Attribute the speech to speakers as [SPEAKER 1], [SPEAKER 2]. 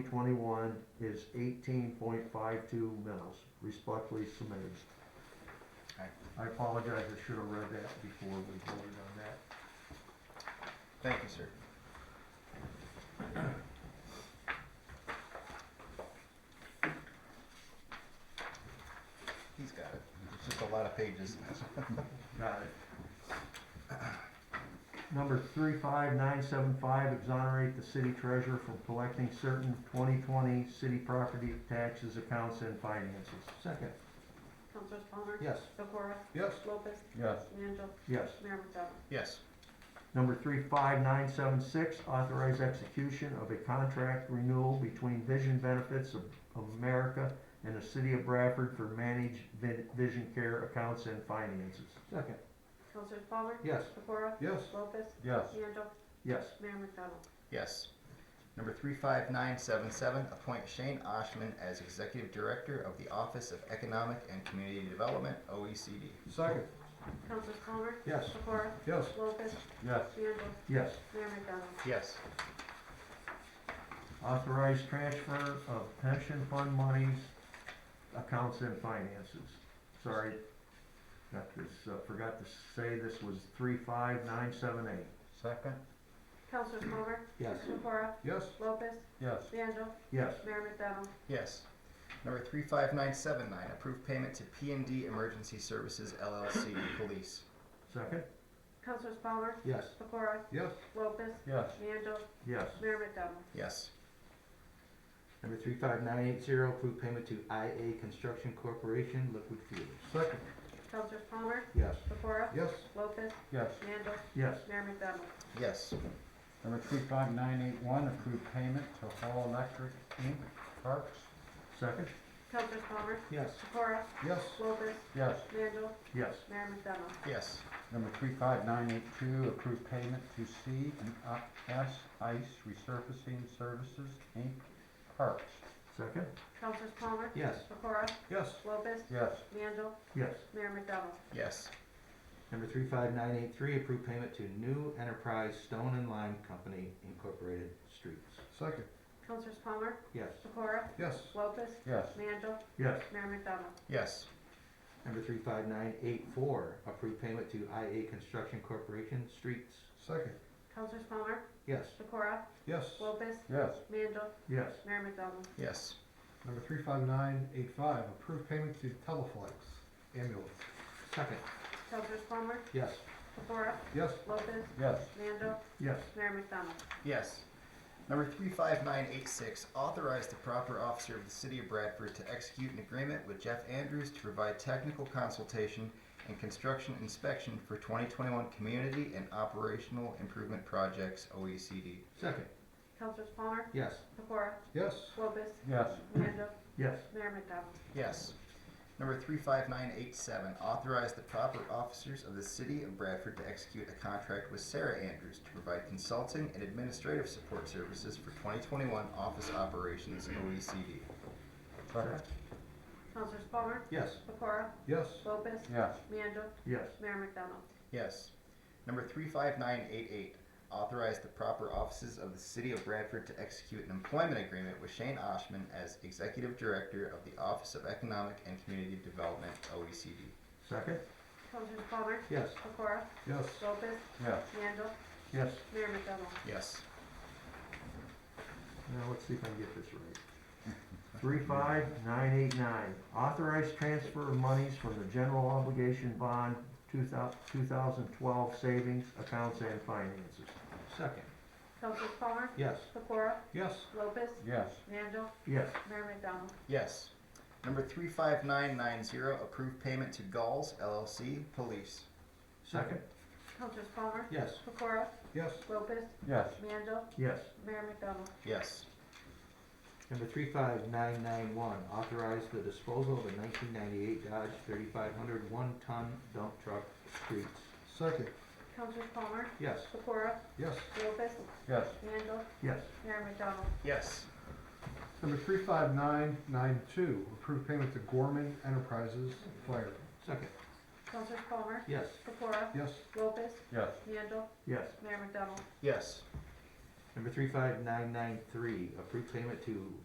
[SPEAKER 1] twenty-one is eighteen point five-two mils, respectfully submitted.
[SPEAKER 2] Okay.
[SPEAKER 1] I apologize, I should have read that before we voted on that.
[SPEAKER 2] Thank you, sir. He's got it. It's just a lot of pages.
[SPEAKER 1] Got it. Number three five nine seven five, exonerate the city treasurer from collecting certain twenty twenty city property taxes, accounts, and finances. Second.
[SPEAKER 3] Councilors Palmer?
[SPEAKER 1] Yes.
[SPEAKER 3] Pecora?
[SPEAKER 2] Yes.
[SPEAKER 3] Lopez?
[SPEAKER 4] yes,
[SPEAKER 3] Mandel?
[SPEAKER 1] Yes.
[SPEAKER 3] Mayor McDonald?
[SPEAKER 2] Yes.
[SPEAKER 1] Number three five nine seven six, authorize execution of a contract renewal between Vision Benefits of of America and the city of Bradford for managed vi- vision care accounts and finances. Second.
[SPEAKER 3] Councilors Palmer?
[SPEAKER 1] Yes.
[SPEAKER 3] Pecora?
[SPEAKER 2] Yes.
[SPEAKER 3] Lopez?
[SPEAKER 4] yes,
[SPEAKER 3] Mandel?
[SPEAKER 1] Yes.
[SPEAKER 3] Mayor McDonald?
[SPEAKER 2] Yes. Number three five nine seven seven, appoint Shane Oshman as Executive Director of the Office of Economic and Community Development, E OECD.
[SPEAKER 4] Second.
[SPEAKER 3] Councilors Palmer?
[SPEAKER 1] Yes.
[SPEAKER 3] Pecora?
[SPEAKER 4] yes,
[SPEAKER 3] Lopez?
[SPEAKER 4] yes,
[SPEAKER 3] Mandel?
[SPEAKER 1] Yes.
[SPEAKER 3] Mayor McDonald?
[SPEAKER 2] Yes.
[SPEAKER 1] Authorized transfer of pension fund monies, accounts and finances. Sorry, got this, uh, forgot to say this was three five nine seven eight.
[SPEAKER 4] second,
[SPEAKER 3] Councilors Palmer?
[SPEAKER 1] Yes.
[SPEAKER 3] Pecora?
[SPEAKER 4] yes,
[SPEAKER 3] Lopez?
[SPEAKER 4] yes,
[SPEAKER 3] Mandel?
[SPEAKER 1] Yes.
[SPEAKER 3] Mayor McDonald?
[SPEAKER 2] Yes. Number three five nine seven nine, approve payment to P and D Emergency Services LLC, Police.
[SPEAKER 1] Second?
[SPEAKER 3] Councilors Palmer?
[SPEAKER 1] Yes.
[SPEAKER 3] Pecora?
[SPEAKER 4] yes,
[SPEAKER 3] Lopez?
[SPEAKER 4] yes,
[SPEAKER 3] Mandel?
[SPEAKER 1] Yes.
[SPEAKER 3] Mayor McDonald?
[SPEAKER 2] Yes.
[SPEAKER 5] Number three five nine eight zero, approve payment to IA Construction Corporation, Liquid Fuels.
[SPEAKER 4] second,
[SPEAKER 3] Councilors Palmer?
[SPEAKER 1] Yes.
[SPEAKER 3] Pecora?
[SPEAKER 4] yes,
[SPEAKER 3] Lopez?
[SPEAKER 4] yes.
[SPEAKER 3] Mandel?
[SPEAKER 1] Yes.
[SPEAKER 3] Mayor McDonald?
[SPEAKER 2] Yes.
[SPEAKER 4] Number three five nine eight one, approve payment to Hall Electric Inc., Parks,
[SPEAKER 1] Second?
[SPEAKER 3] Councilors Palmer?
[SPEAKER 1] Yes.
[SPEAKER 3] Pecora?
[SPEAKER 4] yes,
[SPEAKER 3] Lopez?
[SPEAKER 4] yes.
[SPEAKER 3] Mandel?
[SPEAKER 1] Yes.
[SPEAKER 3] Mayor McDonald?
[SPEAKER 2] Yes.
[SPEAKER 4] Number three five nine eight two, approve payment to C and S Ice Resurfacing Services Inc., Parks,
[SPEAKER 1] Second?
[SPEAKER 3] Councilors Palmer?
[SPEAKER 5] Yes.
[SPEAKER 3] Pecora?
[SPEAKER 4] yes,
[SPEAKER 3] Lopez?
[SPEAKER 4] yes,
[SPEAKER 3] Mandel?
[SPEAKER 1] Yes.
[SPEAKER 3] Mayor McDonald?
[SPEAKER 2] Yes.
[SPEAKER 5] Number three five nine eight three, approve payment to New Enterprise Stone and Lime Company Incorporated Streets.
[SPEAKER 4] second,
[SPEAKER 3] Councilors Palmer?
[SPEAKER 5] Yes.
[SPEAKER 3] Pecora?
[SPEAKER 4] yes,
[SPEAKER 3] Lopez?
[SPEAKER 4] yes,
[SPEAKER 3] Mandel?
[SPEAKER 1] Yes.
[SPEAKER 3] Mayor McDonald?
[SPEAKER 2] Yes.
[SPEAKER 5] Number three five nine eight four, approve payment to IA Construction Corporation, Streets.
[SPEAKER 4] second,
[SPEAKER 3] Councilors Palmer?
[SPEAKER 5] Yes.
[SPEAKER 3] Pecora?
[SPEAKER 4] yes,
[SPEAKER 3] Lopez?
[SPEAKER 4] yes.
[SPEAKER 3] Mandel?
[SPEAKER 1] Yes.
[SPEAKER 3] Mayor McDonald?
[SPEAKER 2] Yes.
[SPEAKER 4] Number three five nine eight five, approve payment to Teleflex ambulance.
[SPEAKER 5] Second.
[SPEAKER 3] Councilors Palmer?
[SPEAKER 5] Yes.
[SPEAKER 3] Pecora?
[SPEAKER 4] Yes.
[SPEAKER 3] Lopez?
[SPEAKER 4] Yes.
[SPEAKER 3] Mandel?
[SPEAKER 1] Yes.
[SPEAKER 3] Mayor McDonald?
[SPEAKER 2] Yes. Number three five nine eight six, authorize the proper officer of the city of Bradford to execute an agreement with Jeff Andrews to provide technical consultation and construction inspection for twenty twenty-one community and operational improvement projects, E OECD.
[SPEAKER 5] Second.
[SPEAKER 3] Councilors Palmer?
[SPEAKER 5] Yes.
[SPEAKER 3] Pecora?
[SPEAKER 4] Yes.
[SPEAKER 3] Lopez?
[SPEAKER 4] Yes.
[SPEAKER 3] Mandel?
[SPEAKER 1] Yes.
[SPEAKER 3] Mayor McDonald?
[SPEAKER 2] Yes. Number three five nine eight seven, authorize the proper officers of the city of Bradford to execute a contract with Sarah Andrews to provide consulting and administrative support services for twenty twenty-one office operations, E OECD.
[SPEAKER 4] Second.
[SPEAKER 3] Councilors Palmer?
[SPEAKER 5] Yes.
[SPEAKER 3] Pecora?
[SPEAKER 4] Yes.
[SPEAKER 3] Lopez?
[SPEAKER 4] Yes.
[SPEAKER 3] Mandel?
[SPEAKER 1] Yes.
[SPEAKER 3] Mayor McDonald?
[SPEAKER 2] Yes. Number three five nine eight eight, authorize the proper offices of the city of Bradford to execute an employment agreement with Shane Oshman as executive director of the Office of Economic and Community Development, E OECD.
[SPEAKER 1] Second?
[SPEAKER 3] Councilors Palmer?
[SPEAKER 5] Yes.
[SPEAKER 3] Pecora?
[SPEAKER 4] Yes.
[SPEAKER 3] Lopez?
[SPEAKER 4] Yes.
[SPEAKER 3] Mandel?
[SPEAKER 1] Yes.
[SPEAKER 3] Mayor McDonald?
[SPEAKER 2] Yes.
[SPEAKER 1] Now, let's see if I can get this right. Three five nine eight nine, authorized transfer of monies from the general obligation bond two thou- 2012 savings accounts and finances.
[SPEAKER 5] Second.
[SPEAKER 3] Councilors Palmer?
[SPEAKER 5] Yes.
[SPEAKER 3] Pecora?
[SPEAKER 4] Yes.
[SPEAKER 3] Lopez?
[SPEAKER 4] Yes.
[SPEAKER 3] Mandel?
[SPEAKER 1] Yes.
[SPEAKER 3] Mayor McDonald?
[SPEAKER 2] Yes. Number three five nine nine zero, approve payment to Gulls LLC Police.
[SPEAKER 1] Second?
[SPEAKER 3] Councilors Palmer?
[SPEAKER 5] Yes.
[SPEAKER 3] Pecora?
[SPEAKER 4] Yes.
[SPEAKER 3] Lopez?
[SPEAKER 4] Yes.
[SPEAKER 3] Mandel?
[SPEAKER 1] Yes.
[SPEAKER 3] Mayor McDonald?
[SPEAKER 2] Yes.
[SPEAKER 5] Number three five nine nine one, authorize the disposal of a nineteen ninety-eight Dodge thirty-five hundred one-ton dump truck streets.
[SPEAKER 4] Second.
[SPEAKER 3] Councilors Palmer?
[SPEAKER 5] Yes.
[SPEAKER 3] Pecora?
[SPEAKER 4] Yes.
[SPEAKER 3] Lopez?
[SPEAKER 4] Yes.
[SPEAKER 3] Mandel?
[SPEAKER 1] Yes.
[SPEAKER 3] Mayor McDonald?
[SPEAKER 2] Yes.
[SPEAKER 6] Number three five nine nine two, approve payment to Gorman Enterprises Fire.
[SPEAKER 5] Second.
[SPEAKER 3] Councilors Palmer?
[SPEAKER 5] Yes.
[SPEAKER 3] Pecora?
[SPEAKER 6] Yes,
[SPEAKER 3] Lopez?
[SPEAKER 4] Yes.
[SPEAKER 3] Mandel?
[SPEAKER 1] Yes.
[SPEAKER 3] Mayor McDonald?
[SPEAKER 2] Yes.
[SPEAKER 5] Number three five nine nine three, approve payment to